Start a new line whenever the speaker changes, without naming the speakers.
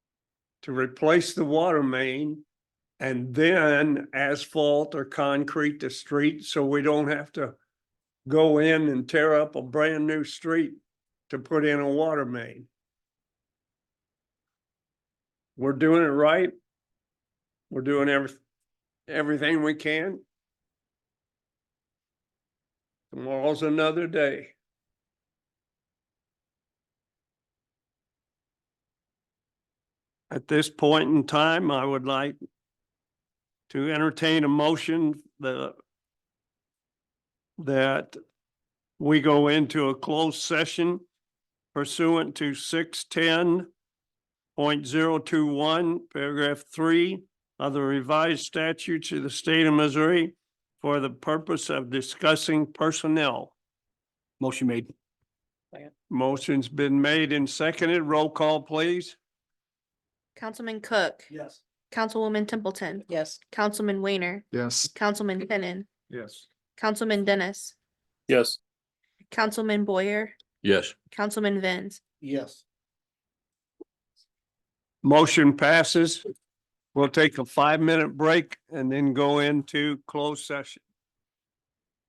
to replace the water main and then asphalt or concrete the street so we don't have to go in and tear up a brand new street to put in a water main. We're doing it right. We're doing every, everything we can. Tomorrow's another day. At this point in time, I would like to entertain a motion the that we go into a closed session pursuant to six ten point zero two one, paragraph three of the revised statutes of the state of Missouri for the purpose of discussing personnel.
Motion made.
Motion's been made and seconded. Roll call, please.
Councilman Cook.
Yes.
Councilwoman Templeton.
Yes.
Councilman Weiner.
Yes.
Councilman Finnan.
Yes.
Councilman Dennis.
Yes.
Councilman Boyer.
Yes.
Councilman Vins.
Yes.
Motion passes. We'll take a five-minute break and then go into closed session.